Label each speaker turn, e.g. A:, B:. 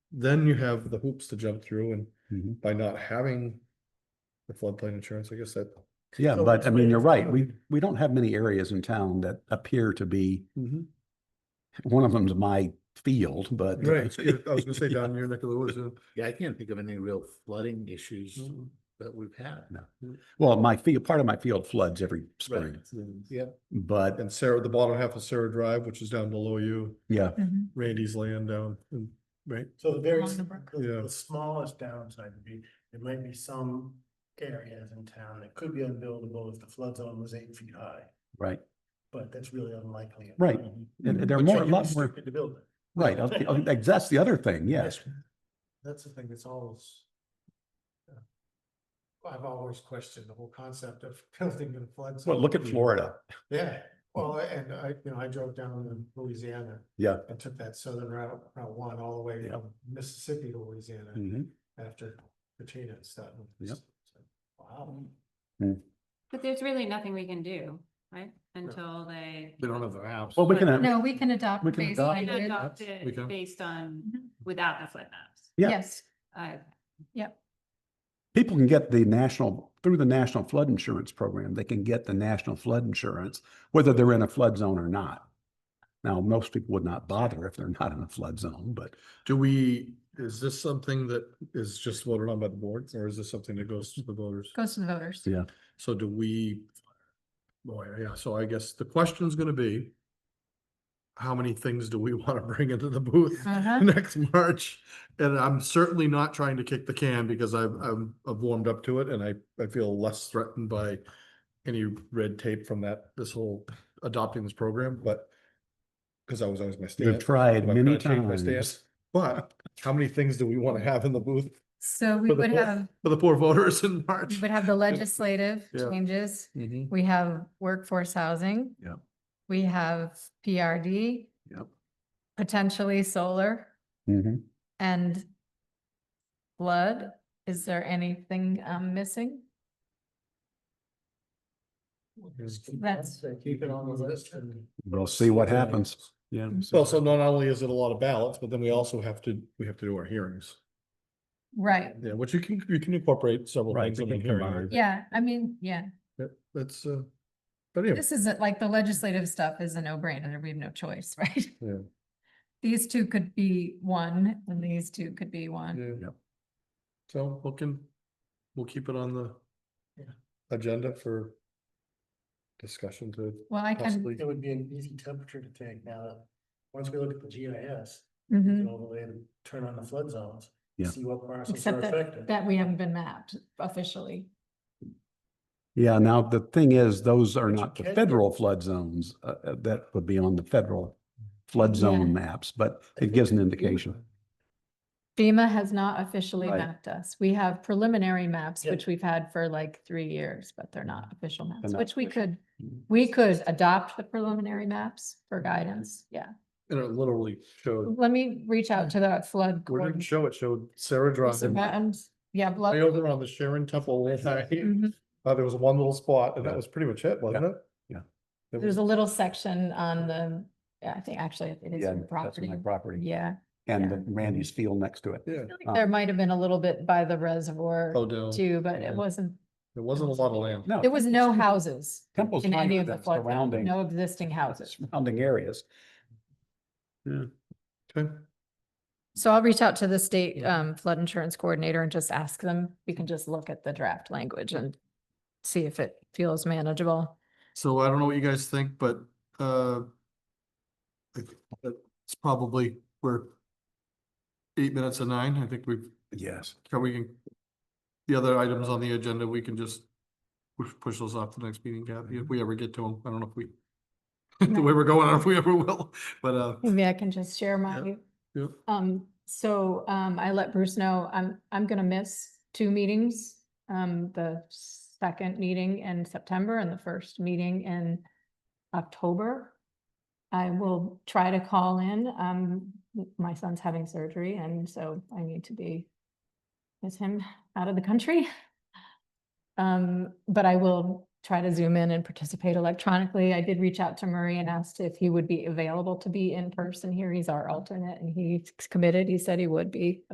A: then you have the hoops to jump through and
B: Mhm.
A: by not having the floodplain insurance, I guess that.
B: Yeah,
A: So
B: but
A: it's
B: I mean,
A: way
B: you're
A: it's
B: right.
A: done.
B: We, we don't have many areas in town that appear to be, one of them's my field, but.
A: Right, I was gonna say down near Nicola Woods, yeah.
C: Yeah, I can't think of any real flooding issues
A: Mm.
C: that we've had.
B: No. Well, my field, part of my field floods every spring,
C: Yeah,
B: but
A: and Sarah, the bottom half of Sarah Drive, which is down below you,
B: yeah,
A: Randy's land down, and- right?
D: So the very,
E: Along
D: s-
E: the brook.
A: Yeah.
D: the, the smallest downside would be, there might be some areas in town that could be unbuildable if the flood zone was eight feet high,
B: right.
D: but that's really unlikely. Mm-hmm.
B: Right. And there are more, a lot more,
D: To build it.
B: right. I- I- I- That's the other thing, yes.
D: That's the thing, that's always. I've always questioned the whole concept of building in flood.
B: Well, look
A: Mm-hmm.
B: at Florida.
D: Yeah, well, and I, you know, I drove down to Louisiana.
B: Yeah.
D: And took that southern route, Route One, all the way
B: Yeah.
D: from Mississippi to Louisiana
A: Mm-hmm.
B: Mhm.
D: after Katrina and stuff.
B: Yep.
D: Wow.
E: But there's really nothing we can do, right, until they.
C: we don't have a house.
B: Well, we can, have-
F: No, we can adopt
B: We can adopt
E: They
F: baseline. with-
E: adopt
A: We
E: it
A: can.
E: based on,
F: Mhm.
E: without the flip maps.
B: Yeah.
F: Yes,
E: I,
B: people can get the national, through the National Flood Insurance Program, they can get the national flood insurance, whether they're in a flood zone or not. Now, most people would not bother if they're not in a flood zone, but
A: Do we, is this something that is just voted on by the board, or is this something that goes to the voters?
F: goes to the voters.
B: Yeah.
A: So do we? Boy, yeah, so I guess the question's gonna be. How many things do we wanna bring into the booth
F: Uh-huh.
A: next March? And I'm certainly not trying to kick the can because I've, I'm, I've warmed up to it and I, I feel less threatened by. Any red tape from that, this whole adopting this program, but. Cause I was always my
B: You've
A: stand.
B: tried
A: I'm
B: many
A: gonna change my
B: times.
A: stance. But how many things do we wanna have in the booth
F: So we
A: For the
F: would
A: vote.
F: have,
A: for the poor voters in
F: we
A: March?
F: would have the legislative
A: Yeah.
F: changes.
A: Mhm.
F: We have workforce housing.
B: Yep.
F: We have PRD.
B: Yep.
F: Potentially solar
B: Mhm.
F: and blood. Is there anything I'm missing? That's-
D: Keep it on the list and.
B: We'll see what happens. Yeah.
A: Well, so not only is it a lot of ballots, but then we also have to, we have to do our hearings.
F: Right.
A: Yeah, which you can, you can incorporate several
B: Right,
A: things
B: we
A: in the
B: can
A: hearing.
B: combine.
F: Yeah, I mean, yeah,
A: Yep, That's, uh, but anyway,
F: this isn't like the legislative stuff is a no brainer. We have no choice, right?
A: Yeah.
F: These two could be one and these two could be one.
A: yeah.
B: Yep.
A: So we'll can, we'll keep it on the
D: Yeah.
A: agenda for discussion to
F: Well, I can
A: possibly.
D: It would be an easy temperature to take now that, once we look at the GIS, we
F: Mhm.
D: can overlay and turn on the flood zones.
B: Yeah.
D: See what parcels are
F: Except
D: affected.
F: that, that we haven't been mapped officially.
B: Yeah, now the thing is, those are
D: But you
B: not the
D: can-
B: federal flood zones, uh, uh, that would be on the federal flood zone maps, but it gives an indication.
F: FEMA has not officially
B: Right.
F: mapped us. We have preliminary maps,
D: Yeah.
F: which we've had for like three years, but they're not official maps,
B: not
F: which we
B: official.
F: could,
B: Mhm.
F: we could adopt the preliminary maps for guidance. Yeah.
A: And it literally showed,
F: Let me reach out to that flood.
A: where did it
F: coordinator.
A: show? It showed Sarah Drive.
F: Some
A: Way
F: mountains. Yeah, blood.
A: over on the Sharon Temple. land.
F: Mhm.
A: Uh, there was one little spot and that
B: Yeah.
A: was pretty much it, wasn't it?
B: Yeah.
A: It
F: There's
A: was-
F: a little section on the, yeah, I think actually it is
B: Yeah,
F: your
B: that's
F: property.
B: my property.
F: Yeah,
B: And
F: yeah.
B: the Randy's field next to it.
A: Yeah.
F: I think
B: Uh,
F: there might have been a little bit by the reservoir
A: Odell.
F: too, but
A: Oh, yeah.
F: it wasn't,
A: There wasn't a lot of land.
B: No.
F: there was no houses.
B: Temple's
F: in any
B: tiny,
F: of the
B: the
F: flood, zone,
B: surrounding,
F: no existing houses.
B: surrounding areas.
A: Okay.
F: So I'll reach out to the state um flood insurance coordinator and just ask them, we can just look at the draft language and see if it feels manageable.
A: So I don't know what you guys think, but, uh, I think that it's probably, we're eight minutes of nine. I think we've,
B: Yes.
A: can we, the other items on the agenda, we can just push, push those off to the next meeting, Kathy, if we ever get to them. I don't know if we, the way we're going, I don't know if we ever will, but, uh,
F: Maybe I can just share my,
A: yeah,
F: um, so um I let Bruce know, I'm, I'm gonna miss two meetings. Um, the second meeting in September and the first meeting in October. I will try to call in. Um, my son's having surgery and so I need to be with him out of the country. Um, but I will try to zoom in and participate electronically. I did reach out to Murray and asked if he would be available to be in person here. He's our alternate and he's committed. He said he would be